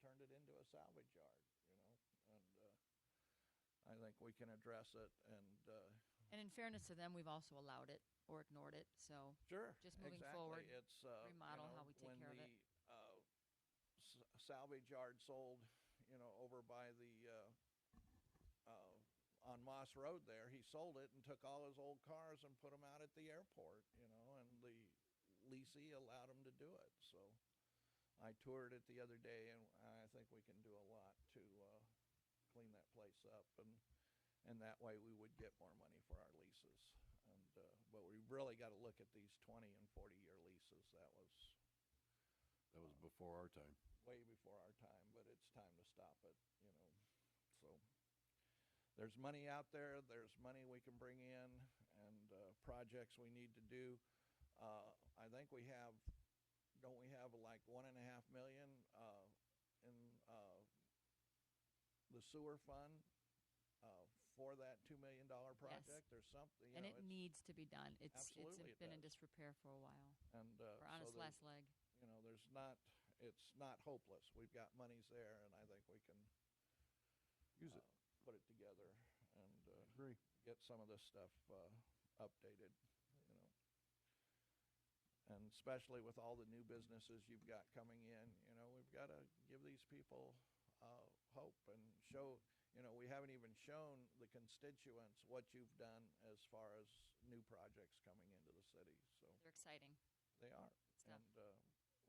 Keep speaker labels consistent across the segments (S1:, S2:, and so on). S1: a salvage yard, you know, and uh, I think we can address it and uh,
S2: And in fairness to them, we've also allowed it or ignored it, so.
S1: Sure.
S2: Just moving
S1: exactly.
S2: forward,
S1: It's uh,
S2: remodel
S1: you know,
S2: how we take
S1: when
S2: care of
S1: the,
S2: it.
S1: Uh, s- salvage yard sold, you know, over by the uh, uh, on Moss Road there. He sold it and took all his old cars and put them out at the airport. You know, and the leasee allowed him to do it. So I toured it the other day, and I think we can do a lot to uh, clean that place up and. And that way we would get more money for our leases. And, uh, but we really got to look at these 20 and 40 year leases. That was
S3: That was before our time.
S1: way before our time, but it's time to stop it, you know. So there's money out there, there's money we can bring in, and uh, projects we need to do. Uh, I think we have, don't we have like one and a half million uh, in uh, the sewer fund uh, for that $2 million project or something? You
S2: And
S1: know,
S2: it
S1: it's-
S2: needs to be done. It's, it's
S1: Absolutely it
S2: been in
S1: does.
S2: disrepair for a while.
S1: And uh,
S2: We're
S1: so
S2: on its
S1: there's-
S2: last leg.
S1: you know, there's not, it's not hopeless. We've got monies there, and I think we can uh,
S3: Use it.
S1: put it together and uh,
S3: Agree.
S1: get some of this stuff uh, updated, you know. And especially with all the new businesses you've got coming in, you know, we've got to give these people uh, hope and show, you know, we haven't even shown the constituents what you've done as far as new projects coming into the city. So
S2: They're exciting.
S1: they are.
S2: stuff.
S1: And, uh,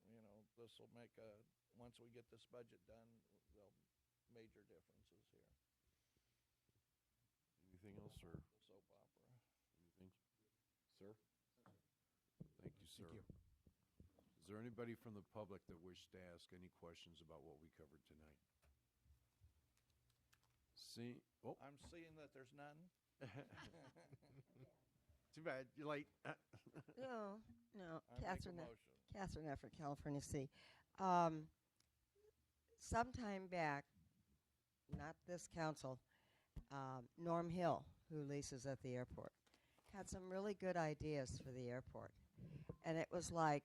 S1: you know, this will make a, once we get this budget done, there'll major differences here,
S3: Anything else, sir?
S1: the soap opera.
S3: Anything? Sir? Thank you, sir.
S4: you.
S3: Is there anybody from the public that wished to ask any questions about what we covered tonight? See, oh,
S1: I'm seeing that there's none.
S3: too bad, you're late.
S5: No, no,
S1: I make a
S5: Catherine. Eff-
S1: motion.
S5: Catherine Effort, California City. Um, sometime back, not this council, um, Norm Hill, who leases at the airport, had some really good ideas for the airport, and it was like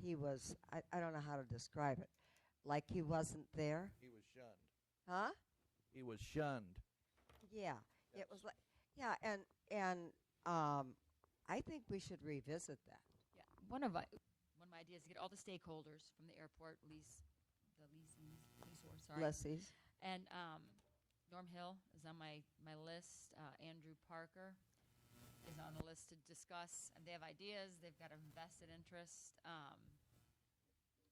S5: he was. I, I don't know how to describe it. Like he wasn't there,
S1: He was shunned.
S5: huh?
S1: He was shunned.
S5: Yeah,
S1: Yes.
S5: it was like yeah, and and um, I think we should revisit that.
S2: Yeah, one of my, one of my ideas is to get all the stakeholders from the airport, lease, the lease, lease, lease, sorry.
S5: Lessees.
S2: And um, Norm Hill is on my, my list. Uh, Andrew Parker is on the list to discuss. And they have ideas, they've got a vested interest, um,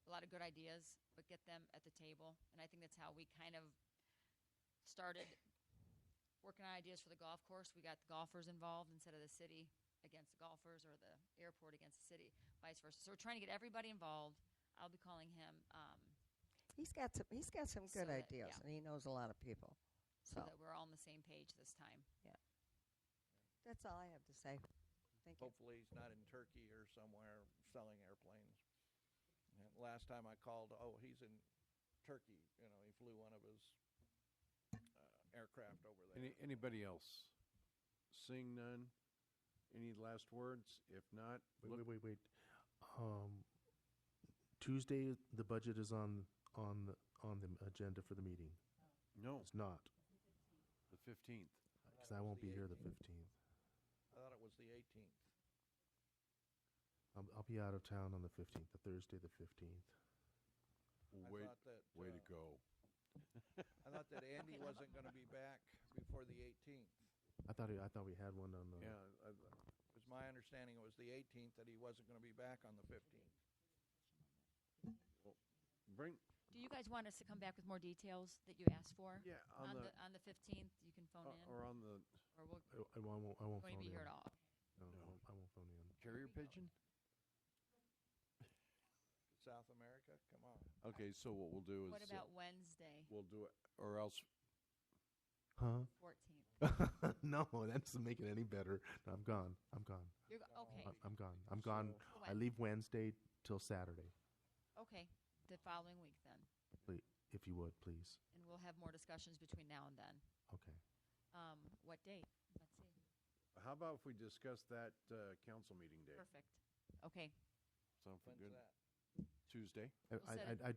S2: a lot of good ideas, but get them at the table. And I think that's how we kind of started working on ideas for the golf course. We got the golfers involved instead of the city against the golfers or the airport against the city, vice versa. So we're trying to get everybody involved. I'll be calling him. Um,
S5: He's got some. He's got some
S2: So
S5: good
S2: that-
S5: ideas,
S2: yeah.
S5: and he knows a lot of people.
S2: so
S5: So,
S2: that we're all on the same page this time.
S5: yeah, that's all I have to say. Thank you.
S1: Hopefully he's not in Turkey or somewhere selling airplanes. And last time I called, oh, he's in Turkey, you know, he flew one of his uh, aircraft over there.
S3: Any, anybody else? Seeing none? Any last words? If not,
S4: Wait,
S3: look-
S4: wait, wait, wait. Um, Tuesday, the budget is on on the on the agenda for the meeting.
S3: no,
S4: It's not
S3: the 15th.
S4: because I won't
S1: It's the
S4: be here the
S1: 18th.
S4: fifteenth.
S1: I thought it was the 18th.
S4: I'll, I'll be out of town on the fifteenth, the Thursday, the fifteenth.
S1: I
S3: Way,
S1: thought that,
S3: way
S1: uh,
S3: to go.
S1: I thought that Andy wasn't going to be back before the 18th.
S4: I thought I thought we had one on the.
S3: Yeah, I-
S1: It was my understanding it was the 18th that he wasn't going to be back on the 15th.
S3: bring,
S2: Do you guys want us to come back with more details that you asked for?
S3: Yeah, on
S2: On
S3: the- uh,
S2: the, oh, on the fifteenth, you can phone in,
S3: or on the
S2: or we'll,
S4: I, I won't. I
S2: won't
S4: won't phone
S2: be
S4: in.
S2: here at all.
S4: No,
S3: No.
S4: I, won't, I won't phone in.
S3: carrier pigeon?
S1: South America, come on.
S3: Okay, so what we'll do is.
S2: What
S3: uh,
S2: about Wednesday,
S3: We'll do it, or else,
S4: Huh?
S2: fourteenth?
S4: no, that doesn't make it any better. No, I'm gone. I'm gone.
S2: You're, go- okay,
S4: I- I'm gone. I'm gone.
S2: So-
S4: I leave Wednesday till Saturday.
S2: okay, the following week then,
S4: Please, if you would, please.
S2: and we'll have more discussions between now and then.
S4: Okay.
S2: Um, what date? Let's see.
S3: how about if we discuss that uh, council meeting day?
S2: Perfect. Okay.
S3: Sound for
S1: When's
S3: good?
S1: that?
S3: Tuesday?
S4: I,
S2: We'll set
S4: I, I,
S2: it-
S4: I